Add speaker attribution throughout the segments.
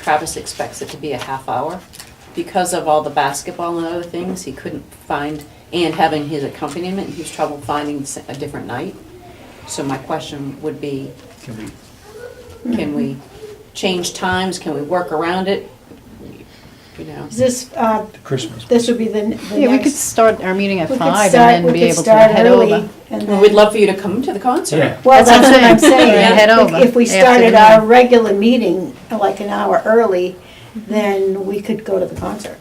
Speaker 1: Travis expects it to be a half hour. Because of all the basketball and other things, he couldn't find, and having his accompaniment, he was trouble finding s- a different night. So my question would be,
Speaker 2: Can we,
Speaker 1: can we change times, can we work around it? You know,
Speaker 3: Is this, uh,
Speaker 2: the Christmas,
Speaker 3: this would be the, the next.
Speaker 4: Yeah, we could start our meeting at
Speaker 3: we could
Speaker 4: five
Speaker 3: start-
Speaker 4: and then
Speaker 3: we
Speaker 4: be
Speaker 3: could
Speaker 4: able to
Speaker 3: start
Speaker 4: head
Speaker 3: early
Speaker 4: over.
Speaker 3: and
Speaker 1: Well, we'd
Speaker 3: then-
Speaker 1: love for you to come to the concert.
Speaker 2: Yeah.
Speaker 3: Well, that's what I'm
Speaker 4: Yeah,
Speaker 3: saying.
Speaker 4: head
Speaker 3: If-
Speaker 4: over
Speaker 3: If we
Speaker 4: after
Speaker 3: started
Speaker 4: the
Speaker 3: our
Speaker 4: meeting.
Speaker 3: regular meeting, uh, like an hour early,
Speaker 1: Mhm.
Speaker 3: then we could go to the concert.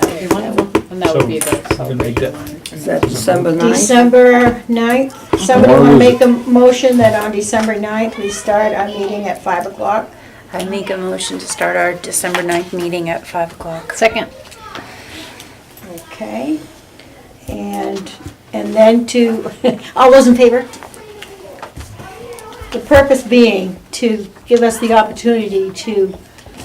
Speaker 1: That'd be wonderful.
Speaker 4: And that
Speaker 2: So,
Speaker 4: would be a good
Speaker 2: we can make that-
Speaker 4: celebration.
Speaker 5: Is that December ninth?
Speaker 3: December 9th, someone
Speaker 2: Why
Speaker 3: will
Speaker 2: was
Speaker 3: make a motion that on December 9th, we start our meeting at 5 o'clock.
Speaker 6: I make a motion to start our December 9th meeting at 5 o'clock.
Speaker 4: Second,
Speaker 3: Okay. And, and then to, all those in favor? The purpose being to give us the opportunity to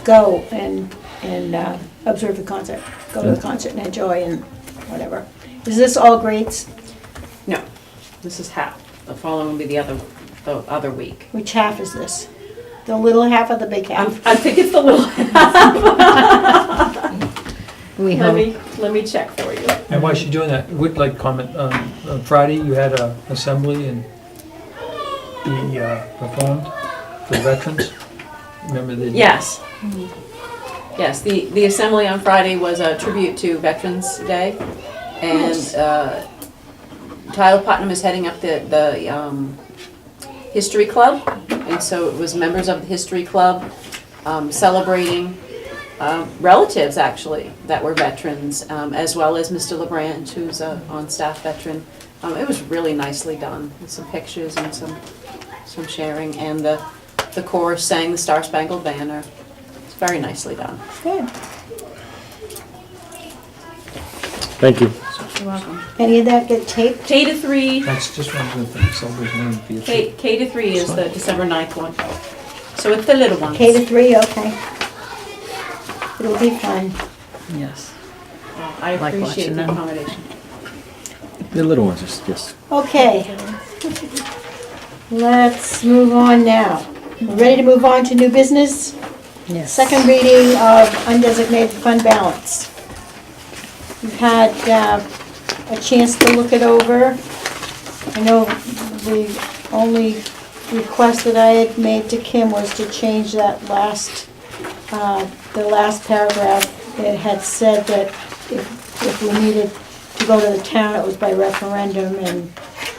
Speaker 3: go and, and uh, observe the concert, go to the concert and enjoy and whatever. Is this all grades?
Speaker 1: No, this is half. The following will be the other, the other week.
Speaker 3: Which half is this? The little half or the big
Speaker 1: I'm-
Speaker 3: half?
Speaker 1: I think it's the little,
Speaker 4: we
Speaker 1: let
Speaker 4: hope.
Speaker 1: me, let me check for you.
Speaker 2: and while she's doing that, would like comment, um, on Friday, you had a assembly and the, uh, performed for veterans. Remember the?
Speaker 1: Yes. Yes, the, the assembly on Friday was a tribute to Veterans Day. And uh, Tyler Putnam is heading up the, the um, History Club. And so it was members of the History Club um, celebrating uh, relatives, actually, that were veterans, um, as well as Mr. LeBranch, who's a on-staff veteran. Um, It was really nicely done, with some pictures and some, some sharing. And the, the chorus sang the Star Spangled Banner. It's very nicely done.
Speaker 3: Good.
Speaker 7: Thank you.
Speaker 1: You're welcome.
Speaker 3: Any of that get taped?
Speaker 1: K to three,
Speaker 2: That's just one of the things, celebration of the
Speaker 1: K, K to three is the December 9th one. So it's the little ones.
Speaker 3: K to three, okay. It'll be fun.
Speaker 4: Yes.
Speaker 1: Well, I
Speaker 4: Like
Speaker 1: appreciate
Speaker 4: watching
Speaker 1: the
Speaker 4: them.
Speaker 1: accommodation.
Speaker 7: The little ones, just, yes.
Speaker 3: Okay. Let's move on now. We're Ready to move on to new business?
Speaker 4: Yes.
Speaker 3: Second reading of undesignated fund balance. You've had uh, a chance to look it over. I know the only request that I had made to Kim was to change that last, uh, the last paragraph. It had said that if if we needed to go to the town, it was by referendum, and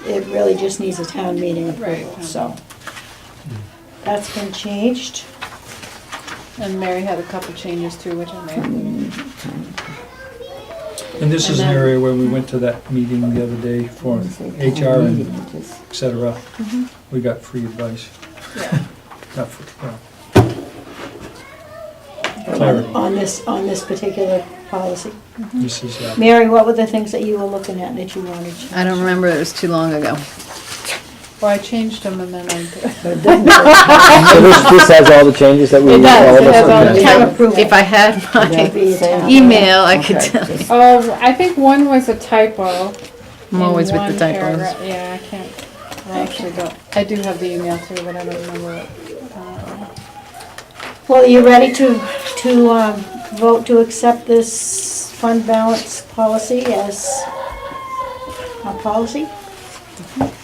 Speaker 3: it really just needs a town meeting approval,
Speaker 4: Right.
Speaker 3: so. That's been changed.
Speaker 4: And Mary had a couple changes too, which I made.
Speaker 2: And this is an
Speaker 4: And then-
Speaker 2: area where we went to that meeting the other day for HR and et cetera. We got free advice.
Speaker 4: Mm-hmm. Yeah.
Speaker 2: Not free, well, Clarity.
Speaker 3: on this, on this particular policy.
Speaker 2: this is, uh,
Speaker 3: Mary, what were the things that you were looking at that you wanted? to-
Speaker 4: I don't remember, it was too long ago. Well, I changed them and then I.
Speaker 7: So this, this has all the changes that we, all
Speaker 4: It
Speaker 7: of
Speaker 4: does, it
Speaker 7: us.
Speaker 4: has all
Speaker 7: on
Speaker 4: the
Speaker 7: there?
Speaker 3: Town
Speaker 4: changes.
Speaker 3: approval.
Speaker 4: If I had my
Speaker 3: Be a town.
Speaker 4: email, I could tell.
Speaker 8: Oh, I think one was a typo.
Speaker 4: I'm
Speaker 8: in
Speaker 4: always with
Speaker 8: one
Speaker 4: the typos.
Speaker 8: paragra- Yeah, I can't, I actually don't, I do have the email too, but I don't remember it. Uh,
Speaker 3: Well, are you ready to, to um, vote to accept this fund balance policy as a policy?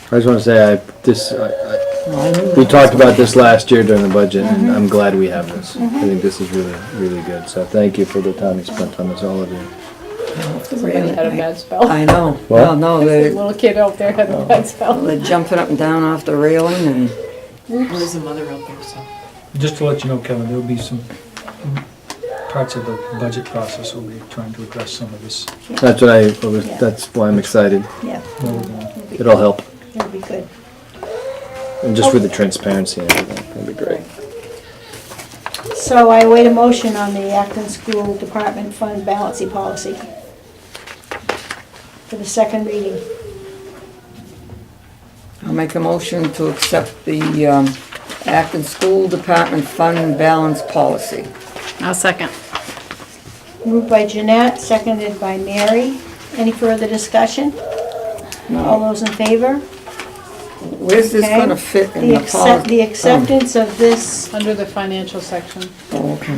Speaker 7: I just wanna say, I, this, I, I, we talked about this last year during the budget, and
Speaker 4: Mm-hmm.
Speaker 7: I'm glad we have this. I think this is really, really good, so thank you for the time you spent on this, all of you.
Speaker 8: Somebody had a bad spell.
Speaker 5: I know,
Speaker 7: What?
Speaker 5: well, no,
Speaker 8: The
Speaker 5: they,
Speaker 8: Little kid out there had a
Speaker 3: Oh.
Speaker 8: bad spell.
Speaker 5: they're jumping up and down off the railing and
Speaker 1: There's a mother out there, so.
Speaker 2: just to let you know, Kevin, there'll be some mm, parts of the budget process we will be trying to address some of this.
Speaker 7: That's what I, I was- that's why I'm excited.
Speaker 3: Yeah,
Speaker 2: where we're going.
Speaker 7: It'll help,
Speaker 3: that'd be good.
Speaker 7: and just with the transparency and everything, that'd be great.
Speaker 3: So I await a motion on the Acton School Department Fund Balancing Policy for the second reading.
Speaker 5: I'll make a motion to accept the um, Acton School Department Fund Balance Policy.
Speaker 4: I'll second.
Speaker 3: Moved by Jeanette, seconded by Mary. Any further discussion? All those in favor?
Speaker 5: Where's this
Speaker 3: Okay.
Speaker 5: gonna fit in
Speaker 3: The
Speaker 5: the
Speaker 3: accept, the
Speaker 5: policy?
Speaker 3: acceptance of this
Speaker 8: Under the financial section.
Speaker 5: Oh, okay.